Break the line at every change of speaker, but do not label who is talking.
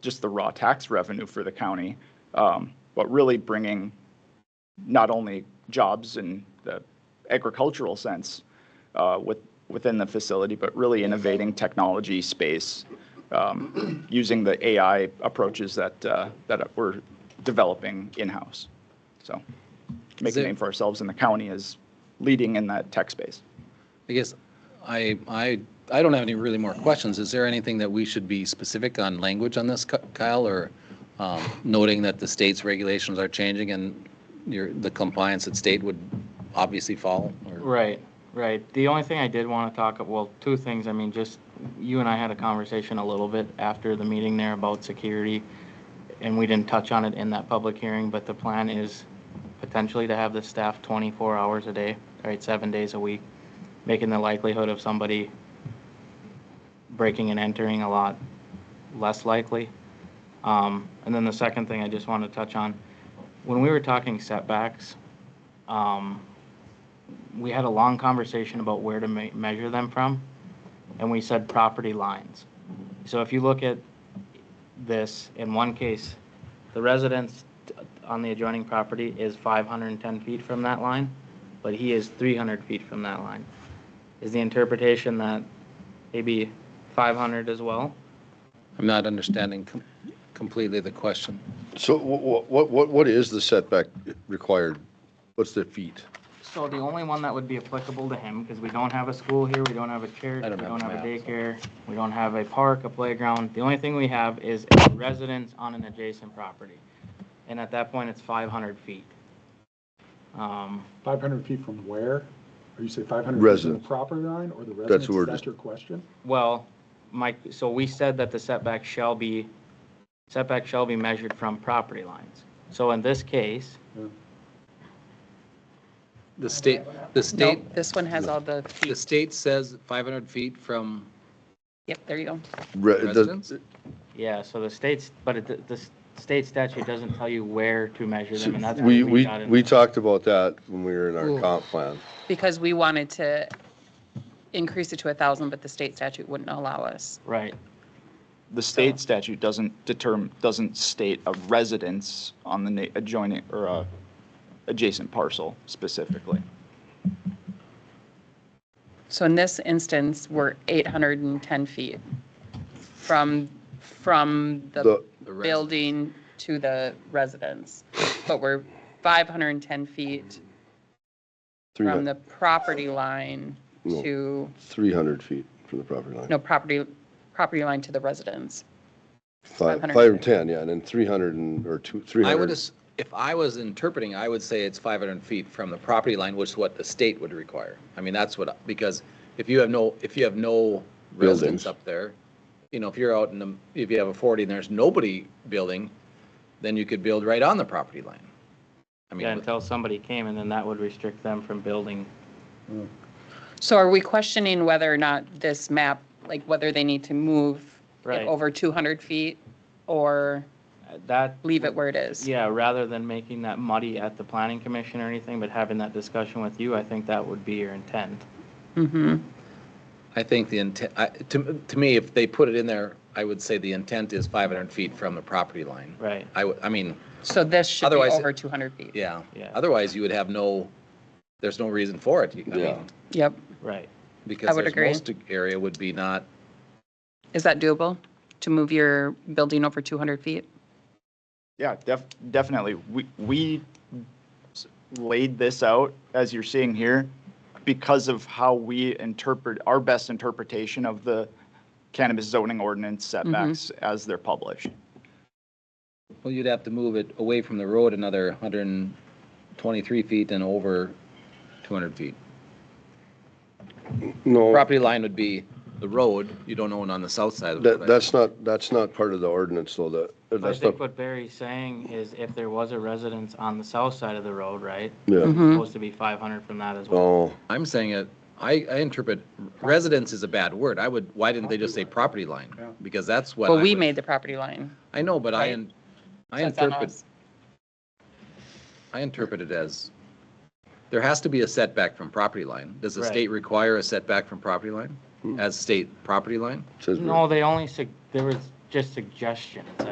just the raw tax revenue for the county, um, but really bringing not only jobs in the agricultural sense uh, with, within the facility, but really innovating technology space, um, using the AI approaches that, uh, that we're developing in-house. So make a
there-
name for ourselves in the county as leading in that tech space.
I guess I, I, I don't have any really more questions. Is there anything that we should be specific on language on this, Ky- Kyle, or um, noting that the state's regulations are changing and your, the compliance that state would obviously follow? or-
Right, right. The only thing I did want to talk, well, two things, I mean, just, you and I had a conversation a little bit after the meeting there about security, and we didn't touch on it in that public hearing, but the plan is potentially to have the staff 24 hours a day, right, seven days a week, making the likelihood of somebody breaking and entering a lot less likely. Um, And then the second thing I just want to touch on, when we were talking setbacks, um, we had a long conversation about where to me- measure them from, and we said property lines. So if you look at this, in one case, the residence t- on the adjoining property is 510 feet from that line, but he is 300 feet from that line. Is the interpretation that maybe 500 as well?
I'm not understanding com- completely the question.
So what, what, what, what is the setback required? What's the feet?
So the only one that would be applicable to him, because we don't have a school here, we don't have a church,
I
we
don't have
don't have a
maps.
daycare, we don't have a park, a playground. The only thing we have is a residence on an adjacent property. And at that point, it's five hundred feet. Um,
500 feet from where? Or you say 500 feet from
Residence.
the property line or the
That's
residence?
the word.
Is that your question?
well, Mike, so we said that the setback shall be, setback shall be measured from property lines. So in this case,
The state, the
No,
state,
this one has all the
the
feet.
state says 500 feet from,
Yep, there you go.
Re- the-
Residence?
yeah, so the state's, but it, the state statute doesn't tell you where to measure them, and that's.
We,
what
we,
got in
we
the-
talked about that when we were in
Ooh.
our comp plan.
Because we wanted to increase it to a thousand, but the state statute wouldn't allow us.
Right.
The state statute doesn't determine, doesn't state a residence on the na- adjoining or a adjacent parcel specifically.
So in this instance, we're eight hundred and ten feet from, from the
The-
The res-
building to the residence. But we're five hundred and ten feet from the property line
No.
to,
Three hundred feet from the property line.
no, property, property line to the residence.
Five,
500.
five and ten, yeah, and then three hundred and, or two, three
I would,
hundred.
as- if I was interpreting, I would say it's 500 feet from the property line, which is what the state would require. I mean, that's what, because if you have no, if you have no residents
Buildings.
up there, you know, if you're out in the, if you have a 40 and there's nobody building, then you could build right on the property line. I
Yeah,
mean, with-
until somebody came and then that would restrict them from building.
So are we questioning whether or not this map, like whether they need to move
Right.
it over 200 feet or
Uh, That.
leave it where it is?
Yeah, rather than making that muddy at the planning commission or anything, but having that discussion with you, I think that would be your intent.
Mm-hmm.
I think the intent, I- to, to me, if they put it in there, I would say the intent is 500 feet from the property line.
Right.
I would, I mean,
So this should be
Otherwise-
over 200 feet?
yeah.
Yeah.
Otherwise, you would have no, there's no reason for it. You- I mean,
Yeah.
Yep.
Right.
Because
would
there's
agree.
most area would be not,
Is that doable, to move your building over 200 feet?
Yeah, def, definitely. We, we s- laid this out, as you're seeing here, because of how we interpret, our best interpretation of the cannabis zoning ordinance setbacks as they're published.
well, you'd have to move it away from the road another 123 feet and over 200 feet.
No,
Property line would be the road, you don't own on the south side of the road.
that, that's not, that's not part of the ordinance though, that,
I
that's not,
think what Barry's saying is if there was a residence on the south side of the road, right?
yeah.
Mhm.
Supposed to be five hundred from that as well.
Oh,
I'm saying it, I, I interpret residence is a bad word. I would, why didn't they just say property line?
Yeah.
Because that's what.
Well,
I
we
would-
made the property line.
I know, but I,
Right.
in- I
so it's on
interpret,
us.
I interpret it as, there has to be a setback from property line. Does the
Right.
state require a setback from property line as state property line?
says.
No, they only, sug- there was just suggestions.